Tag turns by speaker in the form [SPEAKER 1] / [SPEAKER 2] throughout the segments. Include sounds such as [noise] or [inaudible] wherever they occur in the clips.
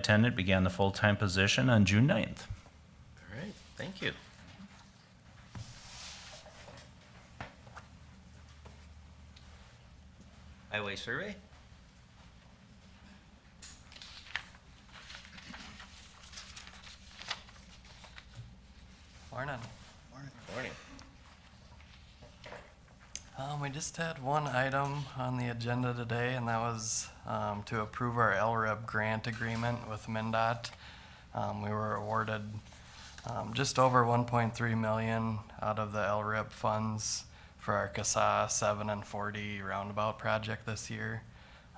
[SPEAKER 1] attendant began the full-time position on June 9th.
[SPEAKER 2] All right, thank you. Highway survey?
[SPEAKER 3] Morning.
[SPEAKER 2] Morning.
[SPEAKER 3] Um, we just had one item on the agenda today, and that was, um, to approve our LREP grant agreement with MinDOT. Um, we were awarded, um, just over one point three million out of the LREP funds for our CASA seven and forty roundabout project this year.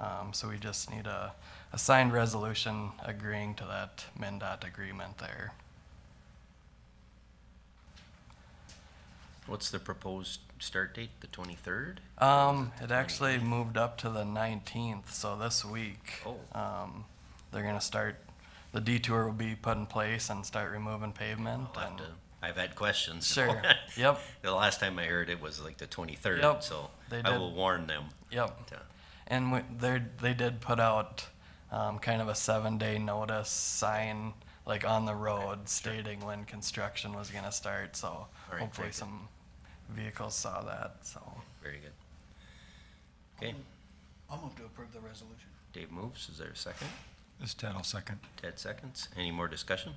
[SPEAKER 3] Um, so we just need a, a signed resolution agreeing to that MinDOT agreement there.
[SPEAKER 2] What's the proposed start date, the twenty-third?
[SPEAKER 3] Um, it actually moved up to the nineteenth, so this week.
[SPEAKER 2] Oh.
[SPEAKER 3] Um, they're gonna start, the detour will be put in place and start removing pavement
[SPEAKER 2] Oh,
[SPEAKER 3] and.
[SPEAKER 2] I've had questions. so- [laughs]
[SPEAKER 3] Sure, [laughs] yep,
[SPEAKER 2] The last time I heard it was like the twenty-third,
[SPEAKER 3] Yep,
[SPEAKER 2] so
[SPEAKER 3] they
[SPEAKER 2] I
[SPEAKER 3] did.
[SPEAKER 2] will warn them.
[SPEAKER 3] yep.
[SPEAKER 2] to-
[SPEAKER 3] And we, they they did put out, um, kind of a seven-day notice sign, like on the road stating when construction was gonna start, so
[SPEAKER 2] very
[SPEAKER 3] hopefully
[SPEAKER 2] good.
[SPEAKER 3] some vehicles saw that, so.
[SPEAKER 2] Very good. Okay,
[SPEAKER 4] I'll move to approve the resolution.
[SPEAKER 2] Dave moves, is there a second?
[SPEAKER 5] This Ted, I'll second.
[SPEAKER 2] Ted seconds. Any more discussion?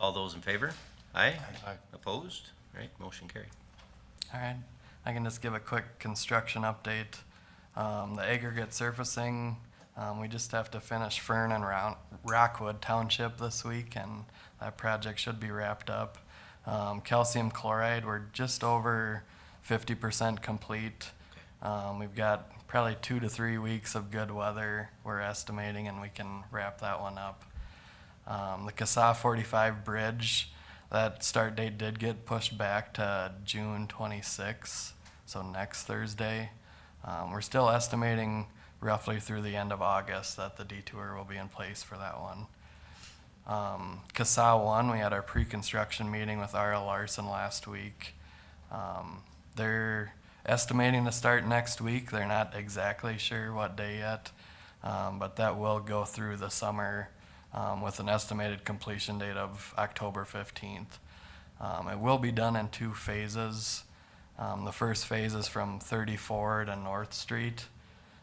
[SPEAKER 2] All those in favor? Aye?
[SPEAKER 5] Aye.
[SPEAKER 2] Opposed? All right, motion carried.
[SPEAKER 3] All right, I can just give a quick construction update. Um, the aggregate surfacing, um, we just have to finish Fern and Round, Rockwood Township this week and that project should be wrapped up. Um, calcium chloride, we're just over fifty percent complete. Um, we've got probably two to three weeks of good weather, we're estimating, and we can wrap that one up. Um, the Casa 45 bridge, that start date did get pushed back to June 26, so next Thursday. Um, we're still estimating roughly through the end of August that the detour will be in place for that one. Um, Casa 1, we had our pre-construction meeting with RL Larson last week. Um, they're estimating to start next week. They're not exactly sure what day yet, um, but that will go through the summer um, with an estimated completion date of October 15th. Um, it will be done in two phases. Um, the first phase is from 34 to North Street.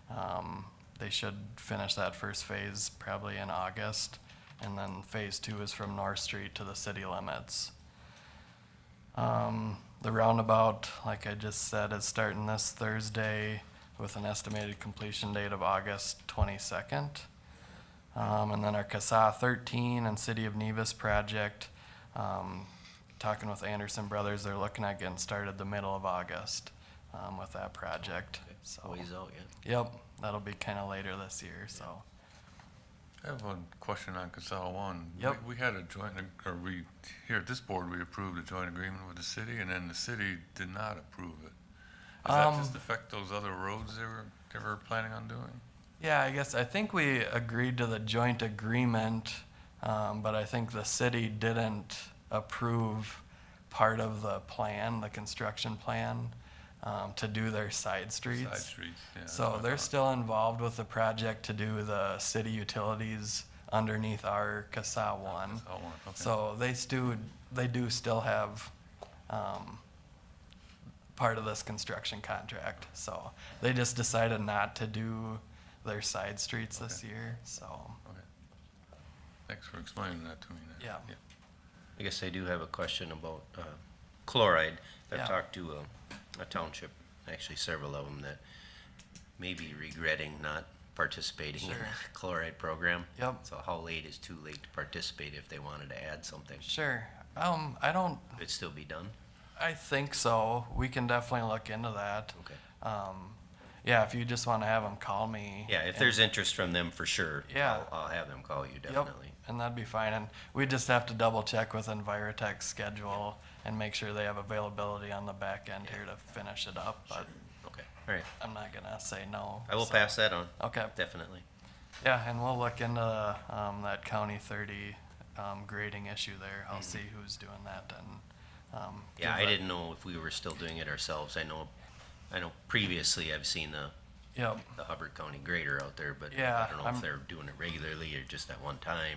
[SPEAKER 3] Um, they should finish that first phase probably in August. And then phase two is from North Street to the city limits. Um, the roundabout, like I just said, is starting this Thursday with an estimated completion date of August twenty-second. Um, and then our CASA thirteen and City of Nevis project, um, talking with Anderson Brothers, they're looking at getting started the middle of August, um, with that project, so.
[SPEAKER 2] Ways out yet?
[SPEAKER 3] Yep, that'll be kind of later this year, so.
[SPEAKER 6] I have one question on Casella One. We-
[SPEAKER 3] Yep.
[SPEAKER 6] We had a joint, ag- or we, here at this board, we approved a joint agreement with the city, and then the city did not approve it. Does that just
[SPEAKER 3] Um,
[SPEAKER 6] affect those other roads they were, they were planning on doing?
[SPEAKER 3] Yeah, I guess, I think we agreed to the joint agreement, um, but I think the city didn't approve part of the plan, the construction plan, um, to do their side
[SPEAKER 6] Side
[SPEAKER 3] streets.
[SPEAKER 6] streets, yeah. that's what
[SPEAKER 3] So
[SPEAKER 6] I
[SPEAKER 3] they're
[SPEAKER 6] thought.
[SPEAKER 3] still involved with the project to do the city utilities underneath our CASA one.
[SPEAKER 6] Casella One, okay.
[SPEAKER 3] So they still, they do still have, um, part of this construction contract, so they just decided not to do their side streets this year, so,
[SPEAKER 6] Okay. Thanks for explaining that to me. then.
[SPEAKER 3] Yeah.
[SPEAKER 2] I guess I do have a question about uh, chloride. I've
[SPEAKER 3] Yeah.
[SPEAKER 2] talked to uh, a, a township, actually several of them, that may be regretting not participating in
[SPEAKER 3] Sure.
[SPEAKER 2] the chloride program.
[SPEAKER 3] Yep.
[SPEAKER 2] So how late is too late to participate if they wanted to add something?
[SPEAKER 3] sure. Um, I don't,
[SPEAKER 2] Could it still be done?
[SPEAKER 3] I think so, we can definitely look into that.
[SPEAKER 2] Okay.
[SPEAKER 3] Um, yeah, if you just wanna have them call me.
[SPEAKER 2] Yeah, if
[SPEAKER 3] and-
[SPEAKER 2] there's interest from them, for sure.
[SPEAKER 3] Yeah.
[SPEAKER 2] I'll- I'll have them call you,
[SPEAKER 3] Yep,
[SPEAKER 2] definitely.
[SPEAKER 3] And that'd be fine, and we just have to double check with Envirotech's schedule and make sure they have availability on the back end here to finish it up, but
[SPEAKER 2] Okay, all right.
[SPEAKER 3] I'm not gonna say no.
[SPEAKER 2] I will
[SPEAKER 3] so-
[SPEAKER 2] pass that on,
[SPEAKER 3] Okay.
[SPEAKER 2] definitely.
[SPEAKER 3] Yeah, and we'll look into um, that county thirty um, grading issue there. I'll see who's doing that and. Um,
[SPEAKER 2] Yeah,
[SPEAKER 3] give
[SPEAKER 2] I
[SPEAKER 3] that-
[SPEAKER 2] didn't know if we were still doing it ourselves. I know, I know previously I've seen the
[SPEAKER 3] Yep.
[SPEAKER 2] the Hubbard County grader out there, but I
[SPEAKER 3] Yeah,
[SPEAKER 2] don't know
[SPEAKER 3] I'm-
[SPEAKER 2] if they're doing it regularly or just at one time